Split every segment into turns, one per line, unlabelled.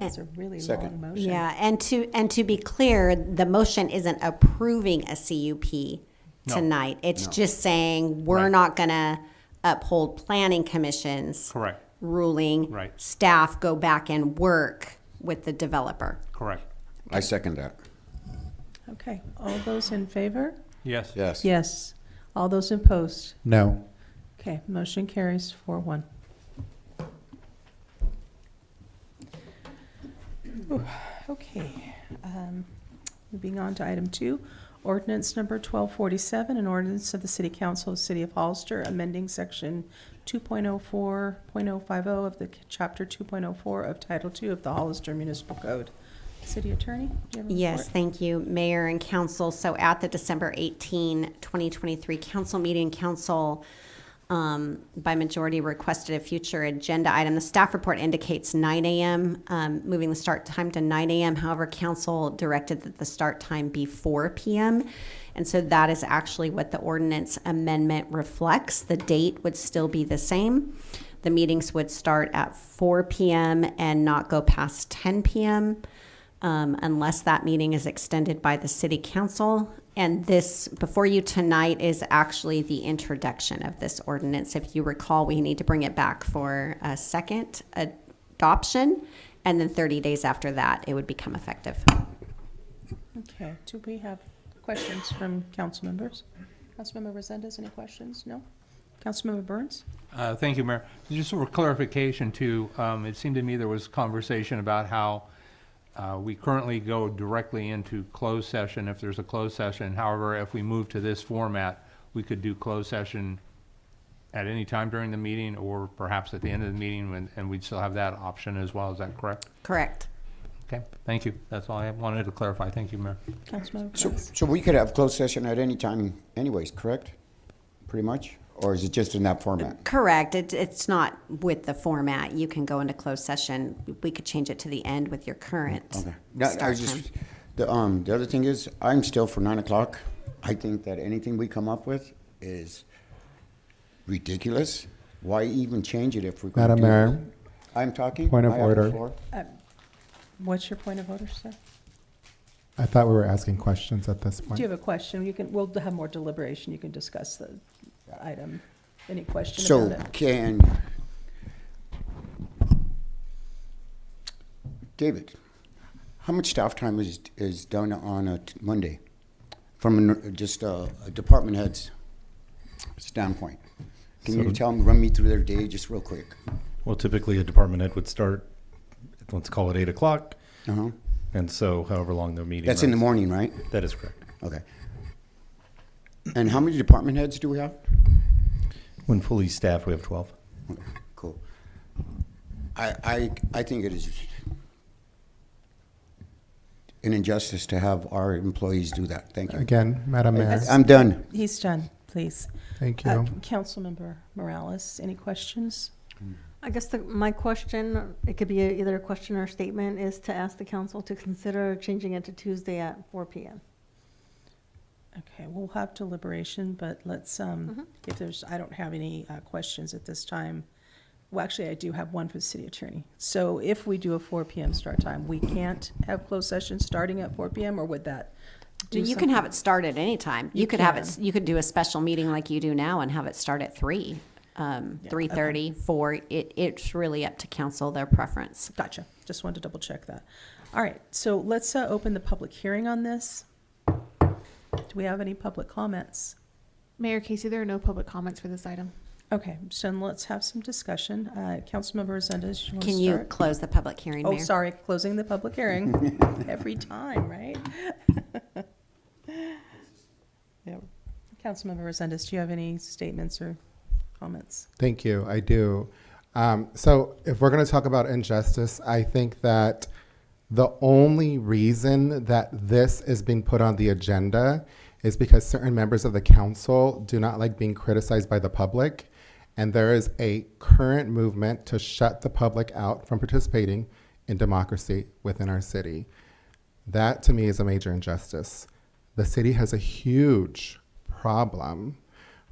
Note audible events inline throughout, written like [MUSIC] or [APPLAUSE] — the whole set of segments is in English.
That's a really long
Second.
motion.
Yeah, and to, and to be clear, the motion isn't approving a CUP
No.
tonight. It's
No.
just saying, we're
Right.
not gonna uphold planning commission's
Correct,
ruling.
Right.
Staff go back and work with the developer.
correct.
I second that.
Okay, all those in favor?
Yes.
Yes.
Yes. All those opposed?
No.
Okay, motion carries four one. Okay, um, moving on to item two, ordinance number twelve forty-seven, an ordinance of the City Council of the City of Hollister, amending section two point oh four point oh five oh of the c- chapter two point oh four of title two of the Hollister Municipal Code. City Attorney, do you have a report?
Yes, thank you, Mayor and Council. So at the December 18, 2023 council meeting, council um, by majority requested a future agenda item. The staff report indicates 9 AM, um, moving the start time to 9 AM. However, council directed that the start time be 4 PM. And so that is actually what the ordinance amendment reflects. The date would still be the same. The meetings would start at 4 PM and not go past 10 PM um, unless that meeting is extended by the city council. And this, before you tonight, is actually the introduction of this ordinance. If you recall, we need to bring it back for a second adoption, and then 30 days after that, it would become effective.
Okay, do we have questions from council members? Councilmember Resendez, any questions? No? Councilmember Burns?
Uh, Thank you, Mayor. Just for clarification too, um, it seemed to me there was conversation about how uh, we currently go directly into closed session if there's a closed session. However, if we move to this format, we could do closed session at any time during the meeting or perhaps at the end of the meeting, when- and we'd still have that option as well. Is that correct?
Correct.
Okay, thank you. That's all I wanted to clarify. Thank you, Mayor.
Councilmember
So,
Burns?
so we could have closed session at any time anyways, correct? Pretty much? Or is it just in that format?
Correct. It, it's not with the format. You can go into closed session. We could change it to the end with your current
Okay. No, I
start
was
time.
just, the, um, the other thing is, I'm still for nine o'clock. I think that anything we come up with is ridiculous. Why even change it if we're gonna
Madam
do it?
Mayor,
I'm talking.
point of
I have the
order.
floor.
What's your point of order, sir?
I thought we were asking questions at this point.
Do you have a question? You can, we'll have more deliberation, you can discuss the item. Any question
So
about it?
can, David, how much staff time is, is done on a t- Monday? From an- just a a department head's standpoint? Can you
So-
tell them, run me through their day just real quick?
Well, typically a department head would start, let's call it eight o'clock,
Uh-huh.
and so however long the meeting.
That's in the
runs.
morning, right?
That is correct.
Okay. And how many department heads do we have?
When fully staffed, we have twelve.
Okay, Cool. I, I, I think it is an injustice to have our employees do that. Thank you.
Again, Madam Mayor,
Yes.
I'm done.
He's done, please.
thank
Uh,
you.
Councilmember Morales, any questions?
I guess the, my question, it could be a- either a question or a statement, is to ask the council to consider changing it to Tuesday at four PM.
Okay, we'll have deliberation, but let's,
Mm-hmm.
um, if there's, I don't have any, uh, questions at this time. Well, actually, I do have one for the city attorney. So if we do a four PM start time, we can't have closed session starting at four PM, or would that? do
You can have
something?
it start at any time.
You
You could have it,
can.
s- you could do a special meeting like you do now and have it start at three, um,
Yeah,
three thirty, four. It, it's really up to council, their preference.
Gotcha, just wanted to double check that. All right, so let's, uh, open the public hearing on this. Do we have any public comments?
Mayor Casey, there are no public comments for this item.
Okay, so then let's have some discussion. Uh, Councilmember Resendez, you want to
Can
start?
you close the public hearing,
Oh,
Mayor?
sorry, closing the public hearing every time, right? [LAUGHS] Yeah. Councilmember Resendez, do you have any statements or comments?
Thank you. I do. Um, so, if we're going to talk about injustice, I think that the only reason that this is being put on the agenda is because certain members of the council do not like being criticized by the public. And there is a current movement to shut the public out from participating in democracy within our city. That to me is a major injustice. The city has a huge problem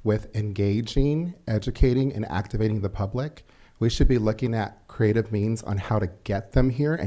with engaging, educating, and activating the public. We should be looking at creative means on how to get them here